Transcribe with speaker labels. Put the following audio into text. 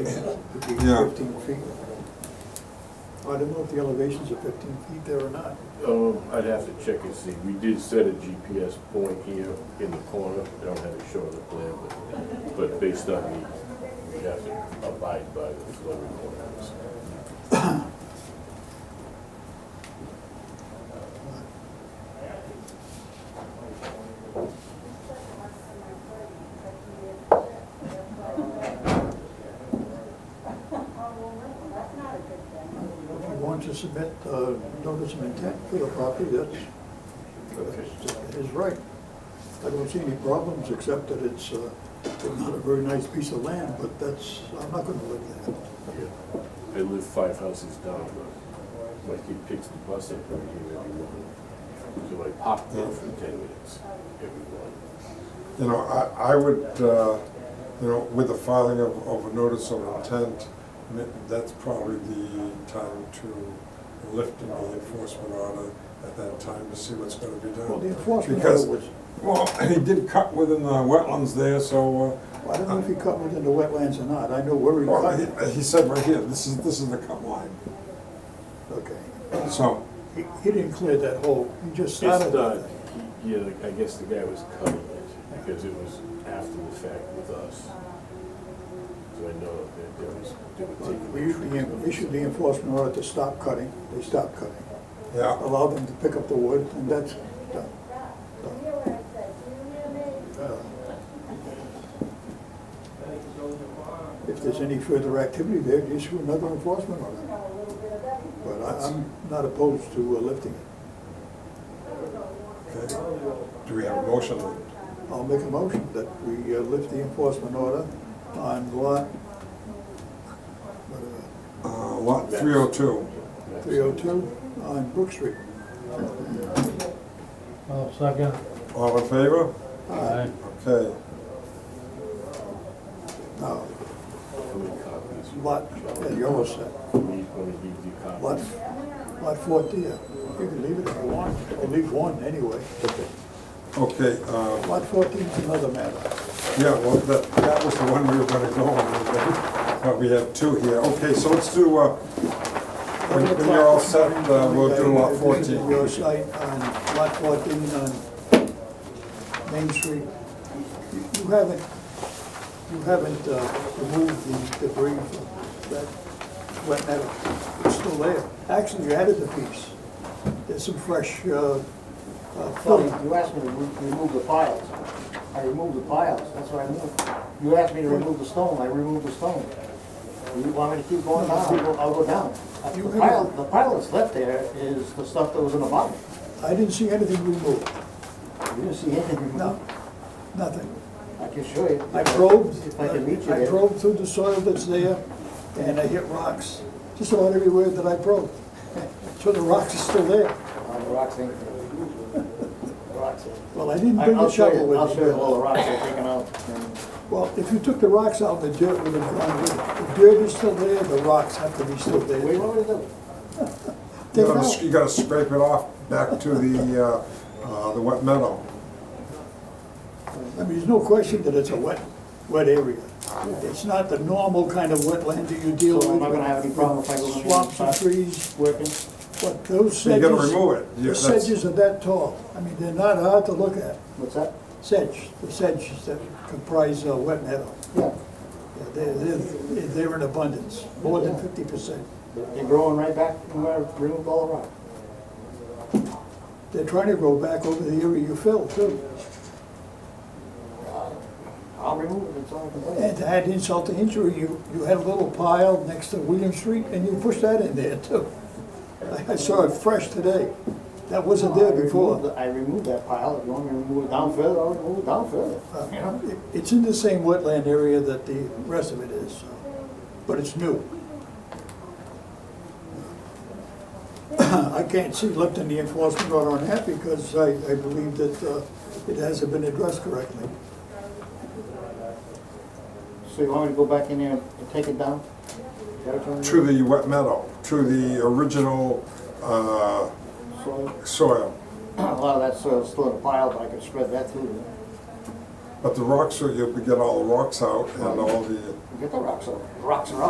Speaker 1: It'd be
Speaker 2: Yeah.
Speaker 1: fifteen feet. I don't know if the elevations are fifteen feet there or not.
Speaker 3: Um, I'd have to check and see. We did set a GPS point here in the corner. I don't have it shown on the plan, but, but based on the, we have to abide by the flow requirements.
Speaker 1: If you want to submit uh notice of intent for the property, that's, that's his right. I don't see any problems, except that it's uh, not a very nice piece of land, but that's, I'm not gonna live there.
Speaker 3: Yeah. I live five houses down, but my kid picks the bus up right here every morning. So I pop there for ten minutes every morning.
Speaker 2: You know, I, I would, uh, you know, with the filing of, of a notice of intent, ma- that's probably the time to lift the enforcement order at that time to see what's gonna be
Speaker 1: Well, the
Speaker 2: done.
Speaker 1: enforcement
Speaker 2: Because-
Speaker 1: was,
Speaker 2: Well, he did cut within the wetlands there, so,
Speaker 1: I don't know if he cut within the wetlands or not, I know where
Speaker 2: uh,
Speaker 1: he
Speaker 2: well,
Speaker 1: cut it.
Speaker 2: he, he said right here, this is, this is the cut line.
Speaker 1: Okay.
Speaker 2: So,
Speaker 1: He, he didn't clear that hole, he just
Speaker 3: It's
Speaker 1: started that
Speaker 3: done. Yeah, like, I guess the guy was cutting it because it was after the fact with us. So I know that there was, they were taking.
Speaker 1: We issued the- we issued the enforcement order to stop cutting, they stopped cutting.
Speaker 2: yeah,
Speaker 1: Allow them to pick up the wood, and that's done. Done. Uh, If there's any further activity there, you issue another enforcement order. But I- I'm not opposed to uh, lifting it.
Speaker 2: okay. Do we have a motion?
Speaker 1: I'll make a motion that we uh, lift the enforcement order on lot, whatever,
Speaker 2: Uh, lot three oh two.
Speaker 1: 302 on Brook Street.
Speaker 4: I'll second.
Speaker 2: All in favor?
Speaker 4: Aye.
Speaker 2: Okay.
Speaker 1: Now,
Speaker 3: How many copies?
Speaker 1: lot, yeah, you almost said,
Speaker 3: We want to leave the copies.
Speaker 1: lot, lot 40, yeah. you can leave it if you want, or leave one anyway.
Speaker 2: Okay, uh,
Speaker 1: Lot 14 is another matter.
Speaker 2: Yeah, well, that, that was the one we were gonna go on, but we have two here. Okay, so let's do, uh, when when you're all set, uh, we'll do lot
Speaker 1: Visiting
Speaker 2: fourteen.
Speaker 1: Your site on lot 14 on Main Street. You you haven't, you haven't uh, removed the debris from that wet metal. It's still there. Actually, you added a piece. There's some fresh uh, uh,
Speaker 5: So
Speaker 1: filling.
Speaker 5: you asked me to re- remove the piles. I removed the piles, that's what I moved. You asked me to remove the stone, I removed the stone. You want me to keep going down, I'll go- I'll go down. Uh,
Speaker 1: You
Speaker 5: The pile, the pile that's left there is the stuff that was in the bottom.
Speaker 1: I didn't see anything removed.
Speaker 5: You didn't see anything removed.
Speaker 1: No, nothing.
Speaker 5: I can show you.
Speaker 1: I probed,
Speaker 5: If I can reach you
Speaker 1: I
Speaker 5: there.
Speaker 1: probed through the soil that's there, and I hit rocks, just about everywhere that I probed. So the rocks are still there.
Speaker 5: On Oh, the rocks ain't. The rocks ain't.
Speaker 1: Well, I didn't
Speaker 5: I-
Speaker 1: bring the
Speaker 5: I'll show
Speaker 1: shovel
Speaker 5: you, I'll
Speaker 1: with
Speaker 5: show you all the
Speaker 1: me.
Speaker 5: rocks they're taking out.
Speaker 1: Well, if you took the rocks out, the dirt would have gone with it. The dirt is still there, the rocks have to be still
Speaker 5: What do you
Speaker 1: there.
Speaker 5: want me to do?
Speaker 2: You
Speaker 1: Take it
Speaker 2: gotta, s-
Speaker 1: out.
Speaker 2: you gotta scrape it off back to the, uh, uh, the wet meadow.
Speaker 1: I mean, there's no question that it's a wet, wet area. It's not the normal kind of wetland that you deal with.
Speaker 5: So I'm not gonna have any problem if I go in there and
Speaker 1: Swamps and
Speaker 5: start-
Speaker 1: trees.
Speaker 5: Working?
Speaker 1: But those
Speaker 2: You
Speaker 1: sedges.
Speaker 2: gotta remove it. Yeah,
Speaker 1: The
Speaker 2: that's-
Speaker 1: sedges are that tall. I mean, they're not hard to look at.
Speaker 5: What's that?
Speaker 1: Sedge, the sedges that comprise uh, wet meadow.
Speaker 5: Yeah,
Speaker 1: Yeah, They're, they're, they're in abundance, more than fifty percent.
Speaker 5: they're growing right back from where I removed all the rock.
Speaker 1: They're trying to grow back over the area you filled too.
Speaker 5: I'll remove it, it's all I can do.
Speaker 1: And to add insult to injury, you, you had a little pile next to William Street and you pushed that in there too. I- I saw it fresh today. That wasn't there
Speaker 5: I
Speaker 1: before.
Speaker 5: removed- I removed that pile, if you want me to remove it down further, I'll remove it down further.
Speaker 1: It- It's in the same wetland area that the rest of it is, so, but it's new. I can't see lifting the enforcement order on that because I, I believe that uh, it hasn't been addressed correctly.
Speaker 5: So you want me to go back in there and take it down? Is that what you want me to
Speaker 2: To
Speaker 5: do?
Speaker 2: the wet meadow, to the original, uh,
Speaker 5: Soil,
Speaker 2: soil.
Speaker 5: a lot of that soil's still in a pile, but I could spread that through there.
Speaker 2: But the rocks, are- you'll get all the rocks out and all the
Speaker 5: Get the rocks out, rocks are out.